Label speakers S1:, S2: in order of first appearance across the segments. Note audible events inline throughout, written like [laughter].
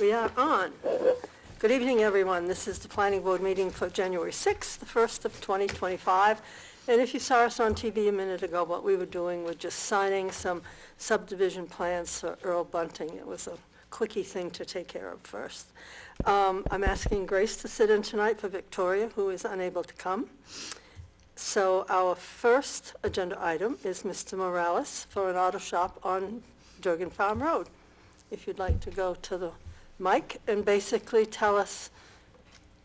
S1: We are on. Good evening, everyone. This is the planning board meeting for January 6th, the 1st of 2025. And if you saw us on TV a minute ago, what we were doing was just signing some subdivision plans for Earl Bunting. It was a quickie thing to take care of first. Um, I'm asking Grace to sit in tonight for Victoria, who is unable to come. So our first agenda item is Mr. Morales for an auto shop on Durgan Farm Road. If you'd like to go to the mic and basically tell us,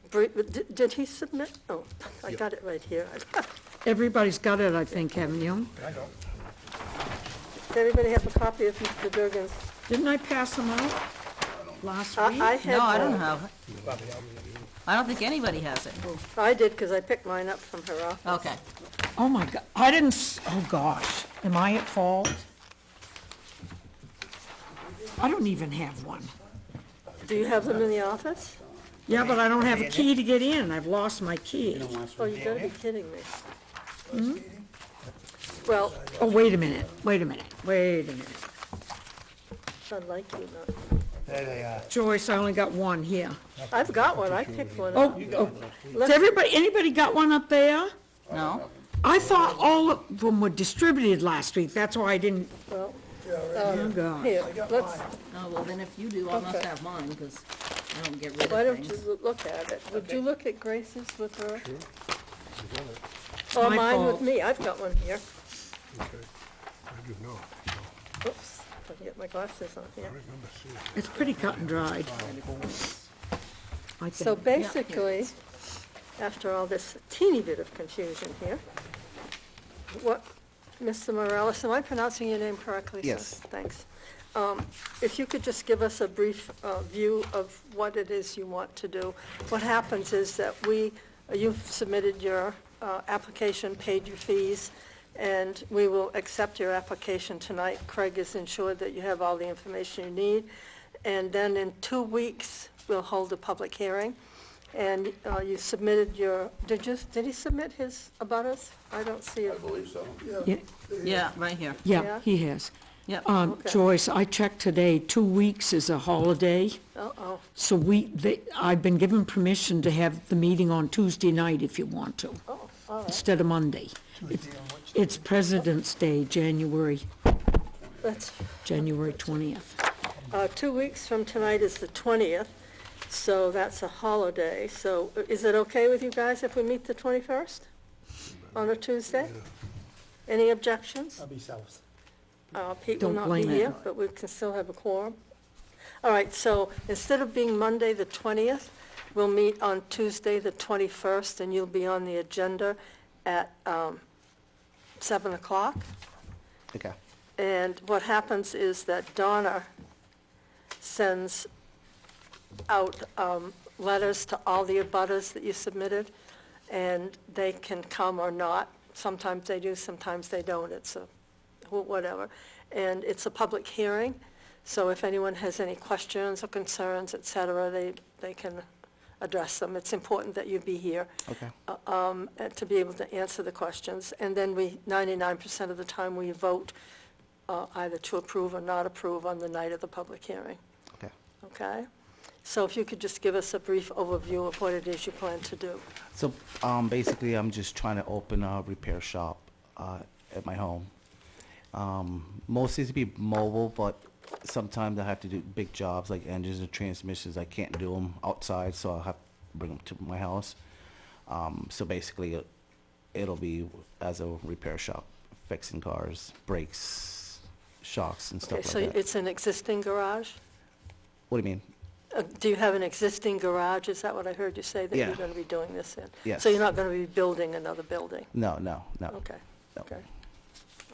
S1: bri- did did he submit? Oh, I got it right here. [laughs]
S2: Everybody's got it, I think, haven't you?
S1: Does everybody have a copy of Mr. Durgan's?
S2: Didn't I pass them out last
S1: I
S2: week?
S1: I had
S3: No, I
S1: one.
S3: don't have it. I don't think anybody has it.
S1: I did, because I picked mine up from her office.
S3: Okay.
S2: Oh, my God, I didn't, s- oh, gosh, am I at fault? I don't even have one.
S1: Do you have them in the office?
S2: Yeah, but I don't have a key to get in, I've lost my key.
S1: Oh, you gotta be kidding me. Hmm? Well,
S2: Oh, wait a minute, wait a minute, wait a minute.
S1: I like you not.
S4: There they are.
S2: Joyce, I only got one here.
S1: I've got one, I picked one
S2: Oh,
S1: up.
S2: oh, does everybody, anybody got one up there?
S3: No?
S2: I thought all of them were distributed last week, that's why I didn't,
S1: Well, um,
S2: oh, God.
S1: here, let's,
S3: Oh, well, then if you do, I must
S1: Okay.
S3: have mine, because I don't get rid
S1: why
S3: of
S1: don't you
S3: things.
S1: loo- look at it? Would you look at Grace's with her? Or
S2: My
S1: mine with
S2: fault.
S1: me, I've got one here.
S4: Okay. I do know.
S1: Oops, I can get my glasses on here.
S4: Remember seeing
S2: It's pretty cut and dried. I
S1: So
S2: think.
S1: basically, after all this teeny bit of confusion here, what, Mr. Morales, am I pronouncing your name correctly? sir?
S5: Yes.
S1: Thanks. Um, If you could just give us a brief uh, view of what it is you want to do. What happens is that we, uh, you've submitted your uh, application, paid your fees, and we will accept your application tonight. Craig is ensured that you have all the information you need. And then in two weeks, we'll hold a public hearing. And uh, you submitted your, did you, did he submit his about us? I don't see it.
S2: Yeah,
S3: Yeah, right here.
S2: Yeah,
S1: Yeah.
S2: he has.
S3: Yep.
S2: Um,
S1: Okay.
S2: Joyce, I checked today, two weeks is a holiday,
S1: Uh-oh.
S2: so we, they- I've been given permission to have the meeting on Tuesday night if you want to,
S1: Oh, all right.
S2: instead of Monday. It's- It's President's Day, January,
S1: That's,
S2: January 20th.
S1: uh, two weeks from tonight is the 20th, so that's a holiday. So uh, is it okay with you guys if we meet the 21st on a Tuesday? Any objections?
S4: I'll be south.
S1: Uh, Pete will
S2: Don't
S1: not be
S2: blame it.
S1: here, but we can still have a quorum. All right, so instead of being Monday, the 20th, we'll meet on Tuesday, the 21st, and you'll be on the agenda at um, 7 o'clock.
S5: Okay.
S1: And what happens is that Donna sends out um, letters to all the abutters that you submitted, and they can come or not. Sometimes they do, sometimes they don't, it's a, wh- whatever. And it's a public hearing, so if anyone has any questions or concerns, et cetera, they, they can address them. It's important that you be here
S5: Okay.
S1: um, uh, to be able to answer the questions. And then we, 99% of the time, we vote uh, either to approve or not approve on the night of the public hearing,
S5: Okay.
S1: okay? So if you could just give us a brief overview of what it is you plan to do.
S5: So um, basically, I'm just trying to open a repair shop uh, at my home. Um, mostly to be mobile, but sometimes I have to do big jobs like engines and transmissions. I can't do them outside, so I'll have to bring them to my house. Um, so basically, it, it'll be as a repair shop, fixing cars, brakes, shocks, and
S1: Okay,
S5: stuff
S1: so
S5: like that.
S1: it's an existing garage?
S5: what do you mean?
S1: Uh, Do you have an existing garage? Is that what I heard you say, that you're
S5: Yeah.
S1: going to be doing this in?
S5: Yes.
S1: So you're not going to be building another building?
S5: No, no, no.
S1: Okay,
S5: No.
S1: okay.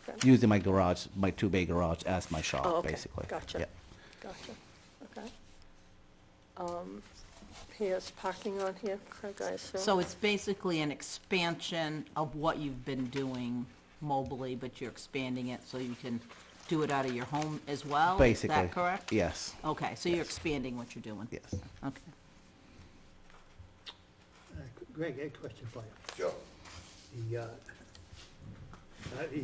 S1: Okay.
S5: using my garage, my two-bay garage as my shop,
S1: Oh, okay.
S5: basically.
S1: Gotcha.
S5: Yeah.
S1: Gotcha, okay. Um, Here's parking on here, Craig, I assume?
S3: So it's basically an expansion of what you've been doing mobily, but you're expanding it so you can do it out of your home as well?
S5: Basically.
S3: Is that correct?
S5: Yes.
S3: Okay, so you're expanding what you're doing?
S5: Yes.
S3: Okay.
S4: Greg, I had a question for you. Sure. The, uh, uh,